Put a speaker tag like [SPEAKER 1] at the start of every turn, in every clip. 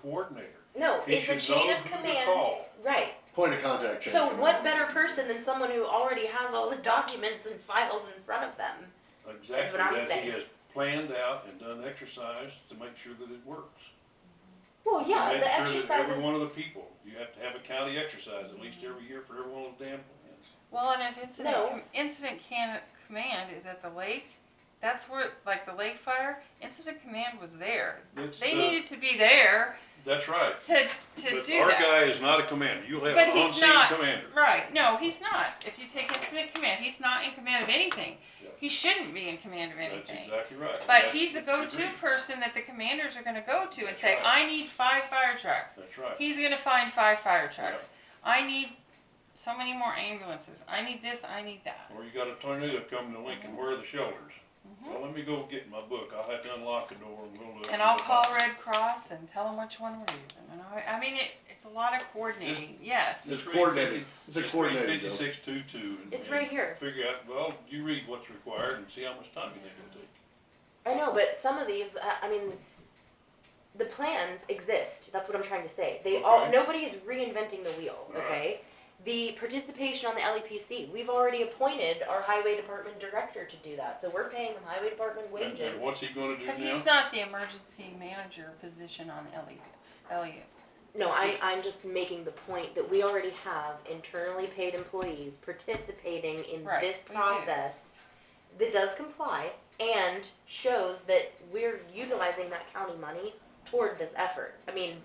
[SPEAKER 1] coordinator.
[SPEAKER 2] No,
[SPEAKER 1] He
[SPEAKER 2] it's a
[SPEAKER 1] should
[SPEAKER 2] chain
[SPEAKER 1] know
[SPEAKER 2] of
[SPEAKER 1] who to
[SPEAKER 2] command,
[SPEAKER 1] call.
[SPEAKER 2] right.
[SPEAKER 3] Point of contact chain.
[SPEAKER 2] So what
[SPEAKER 3] command.
[SPEAKER 2] better person than someone who already has all the documents and files in front of them?
[SPEAKER 1] Exactly,
[SPEAKER 2] I'm
[SPEAKER 1] that he
[SPEAKER 2] saying.
[SPEAKER 1] has planned out and done exercise to make sure that it works.
[SPEAKER 2] Well, yeah,
[SPEAKER 1] Make sure
[SPEAKER 2] the
[SPEAKER 1] that
[SPEAKER 2] exercises,
[SPEAKER 1] Every one of the people, you have to have a county exercise at least every year for every one of the damn plans.
[SPEAKER 4] Well, and if incident,
[SPEAKER 2] No.
[SPEAKER 4] com- incident can, command is at the lake, that's where, like the lake fire, incident command was there.
[SPEAKER 1] That's,
[SPEAKER 4] They
[SPEAKER 1] uh,
[SPEAKER 4] needed to be there
[SPEAKER 1] That's right.
[SPEAKER 4] to, to
[SPEAKER 1] But
[SPEAKER 4] do
[SPEAKER 1] our
[SPEAKER 4] that.
[SPEAKER 1] guy is not a commander. You'll have
[SPEAKER 4] But
[SPEAKER 1] an
[SPEAKER 4] he's
[SPEAKER 1] on-scene
[SPEAKER 4] not.
[SPEAKER 1] commander.
[SPEAKER 4] Right, no, he's not. If you take incident command, he's not in command of anything.
[SPEAKER 1] Yeah.
[SPEAKER 4] He shouldn't be in command of
[SPEAKER 1] That's
[SPEAKER 4] anything.
[SPEAKER 1] exactly right. and
[SPEAKER 4] But
[SPEAKER 1] that's
[SPEAKER 4] he's the go-to
[SPEAKER 1] agreed.
[SPEAKER 4] person that the commanders are gonna go to and
[SPEAKER 1] That's
[SPEAKER 4] say,
[SPEAKER 1] right.
[SPEAKER 4] I need five fire trucks.
[SPEAKER 1] That's right.
[SPEAKER 4] He's gonna find five fire trucks. I need so many more ambulances. I need this, I need that.
[SPEAKER 1] Or you got a tornado coming to Lincoln, where are the shelters?
[SPEAKER 4] Mhm.
[SPEAKER 1] Well, let me go get my book. I'll have to unlock a door and we'll look.
[SPEAKER 4] And I'll call Red Cross and tell them which one we're using. And I, I mean, it, it's a lot of coordinating, yes.
[SPEAKER 3] It's coordinated. It's a coordinated deal.
[SPEAKER 1] Fifty-six two-two.
[SPEAKER 2] It's right here.
[SPEAKER 1] Figure out, well, you read what's required and see how much time you think it'll take.
[SPEAKER 2] I know, but some of these, uh, I mean, the plans exist, that's what I'm trying to say. They all,
[SPEAKER 1] Okay.
[SPEAKER 2] nobody is reinventing the wheel,
[SPEAKER 1] All right.
[SPEAKER 2] okay? The participation on the LEPC, we've already appointed our highway department director to do that, so we're paying the highway department
[SPEAKER 1] And-
[SPEAKER 2] wages.
[SPEAKER 1] And what's he gonna do
[SPEAKER 4] But
[SPEAKER 1] now?
[SPEAKER 4] he's not the emergency manager position on Elliot, Elliot.
[SPEAKER 2] No, I'm,
[SPEAKER 4] See-
[SPEAKER 2] I'm just making the point that we already have internally paid employees participating in
[SPEAKER 4] Right,
[SPEAKER 2] this
[SPEAKER 4] we do.
[SPEAKER 2] process that does comply and shows that we're utilizing that county money toward this effort. I mean,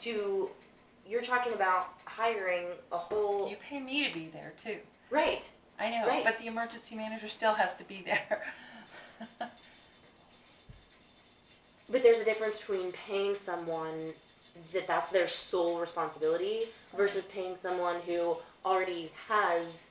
[SPEAKER 2] to, you're talking about hiring a whole,
[SPEAKER 4] You pay me to be there too.
[SPEAKER 2] right,
[SPEAKER 4] I know,
[SPEAKER 2] Right.
[SPEAKER 4] but the emergency manager still has to be there.
[SPEAKER 2] but there's a difference between paying someone that that's their sole responsibility versus paying someone who already has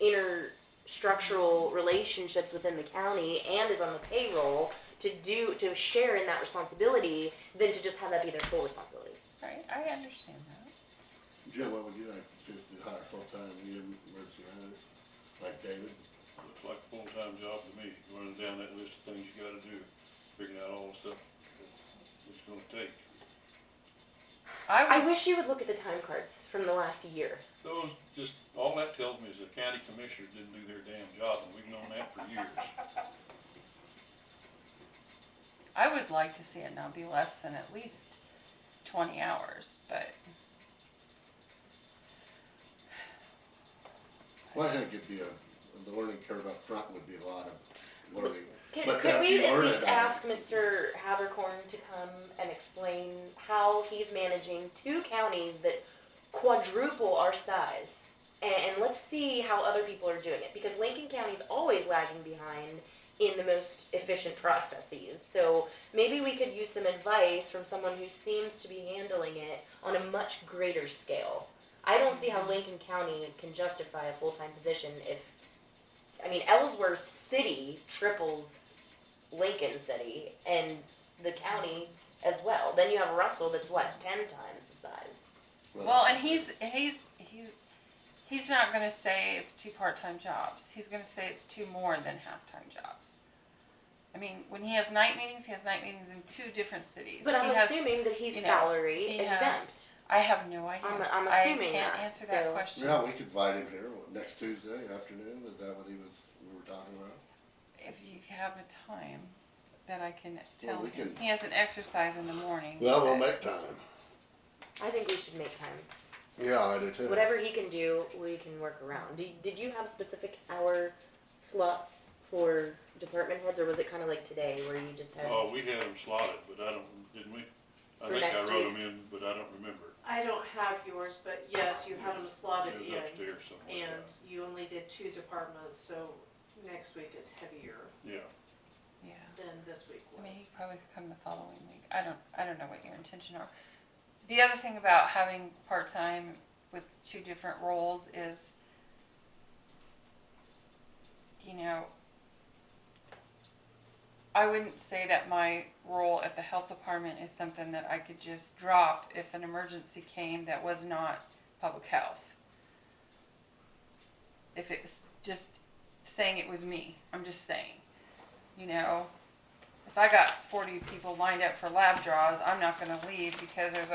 [SPEAKER 2] inner structural relationships within the county and is on the payroll to do to share in that responsibility than to just have that be their sole responsibility.
[SPEAKER 4] Right, I understand that.
[SPEAKER 3] Jill, what would you like to see if you hire full-time emergency manager, like David?
[SPEAKER 1] Looks like a full-time job to me, running down that list of things you gotta do, figuring out all the stuff that it's gonna take.
[SPEAKER 4] I
[SPEAKER 2] I
[SPEAKER 4] would,
[SPEAKER 2] wish you would look at the time cards from the last year.
[SPEAKER 1] Those, just, all that tells me is the county commissioners didn't do their damn job, and we've known that for years.
[SPEAKER 4] I would like to see it not be less than at least twenty hours, but
[SPEAKER 3] Well, I think it'd be a, the learning curve up front would be a lot of learning.
[SPEAKER 2] Could,
[SPEAKER 3] But
[SPEAKER 2] could
[SPEAKER 3] that
[SPEAKER 2] we
[SPEAKER 3] you
[SPEAKER 2] at
[SPEAKER 3] learn
[SPEAKER 2] least
[SPEAKER 3] it, I mean.
[SPEAKER 2] ask Mr. Habercorn to come and explain how he's managing two counties that quadruple our size? And, and let's see how other people are doing it, because Lincoln County's always lagging behind in the most efficient processes. So maybe we could use some advice from someone who seems to be handling it on a much greater scale. I don't see how Lincoln County can justify a full-time position if I mean, Ellsworth City triples Lincoln City and the county as well. Then you have Russell that's what, 10 times the size.
[SPEAKER 4] Well, and he's, he's, he's, he's not gonna say it's two part-time jobs, he's gonna say it's two more than half-time jobs. I mean, when he has night meetings, he has night meetings in two different cities.
[SPEAKER 2] But I'm
[SPEAKER 4] He has-
[SPEAKER 2] assuming that he's
[SPEAKER 4] you know,
[SPEAKER 2] salary
[SPEAKER 4] he
[SPEAKER 2] exempt.
[SPEAKER 4] has- I have no idea.
[SPEAKER 2] I'm- I'm
[SPEAKER 4] I
[SPEAKER 2] assuming
[SPEAKER 4] can't
[SPEAKER 2] that,
[SPEAKER 4] answer that
[SPEAKER 2] so-
[SPEAKER 4] question.
[SPEAKER 3] Yeah, we could invite him here what, next Tuesday afternoon, is that what he was, we were talking about?
[SPEAKER 4] If you have a time that I can
[SPEAKER 3] Well,
[SPEAKER 4] tell
[SPEAKER 3] we
[SPEAKER 4] him,
[SPEAKER 3] can-
[SPEAKER 4] he has an exercise in the morning.
[SPEAKER 3] Well, we'll
[SPEAKER 4] but-
[SPEAKER 3] make time.
[SPEAKER 2] I think we should make time.
[SPEAKER 3] Yeah, I do too.
[SPEAKER 2] Whatever he can do, we can work around. Did, did you have specific hour slots for department heads, or was it kind of like today where you just had.
[SPEAKER 1] Oh, we had them slotted, but I don't, didn't we? I
[SPEAKER 2] For
[SPEAKER 1] think I
[SPEAKER 2] next
[SPEAKER 1] wrote
[SPEAKER 2] week.
[SPEAKER 1] them in, but I don't remember.
[SPEAKER 5] I don't have yours, but yes, you had them slotted
[SPEAKER 1] It was
[SPEAKER 5] in,
[SPEAKER 1] Upstairs somewhere.
[SPEAKER 5] and you only did two departments, so next week is heavier
[SPEAKER 1] Yeah,
[SPEAKER 4] Yeah,
[SPEAKER 5] than this week
[SPEAKER 4] I mean,
[SPEAKER 5] was.
[SPEAKER 4] he probably could come the following week, I don't, I don't know what your intention are. The other thing about having part-time with two different roles is, you know, I wouldn't say that my role at the health department is something that I could just drop if an emergency came that was not public health. If it was just saying it was me, I'm just saying, you know, if I got forty people lined up for lab draws, I'm not gonna leave because there's a